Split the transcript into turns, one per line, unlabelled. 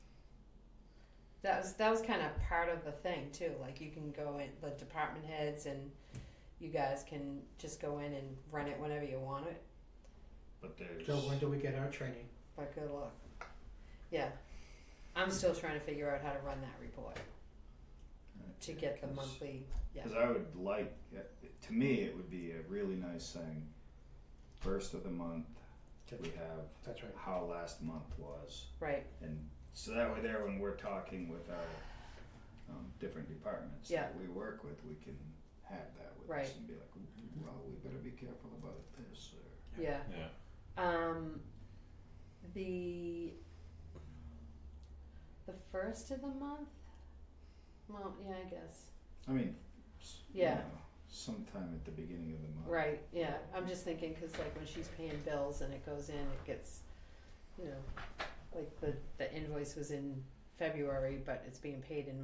That was that was kind of part of the thing too. Like you can go in the department heads and you guys can just go in and run it whenever you want it.
but there's.
So when do we get our training?
But good luck. Yeah, I'm still trying to figure out how to run that report to get the monthly. Yeah.
Because I would like, to me, it would be a really nice thing. First of the month, we have
That's right.
how last month was.
Right.
And so that way there, when we're talking with our um, different departments that we work with, we can have that with us
Right.
and be like, "Ooh, well, we better be careful about this or.
Yeah.
Yeah.
Um, the the first of the month. Well, yeah, I guess.
I mean, s- you
Yeah.
know, sometime at the beginning of the month.
Right. Yeah. I'm just thinking because like when she's paying bills and it goes in, it gets, you know, like the the invoice was in February, but it's being paid in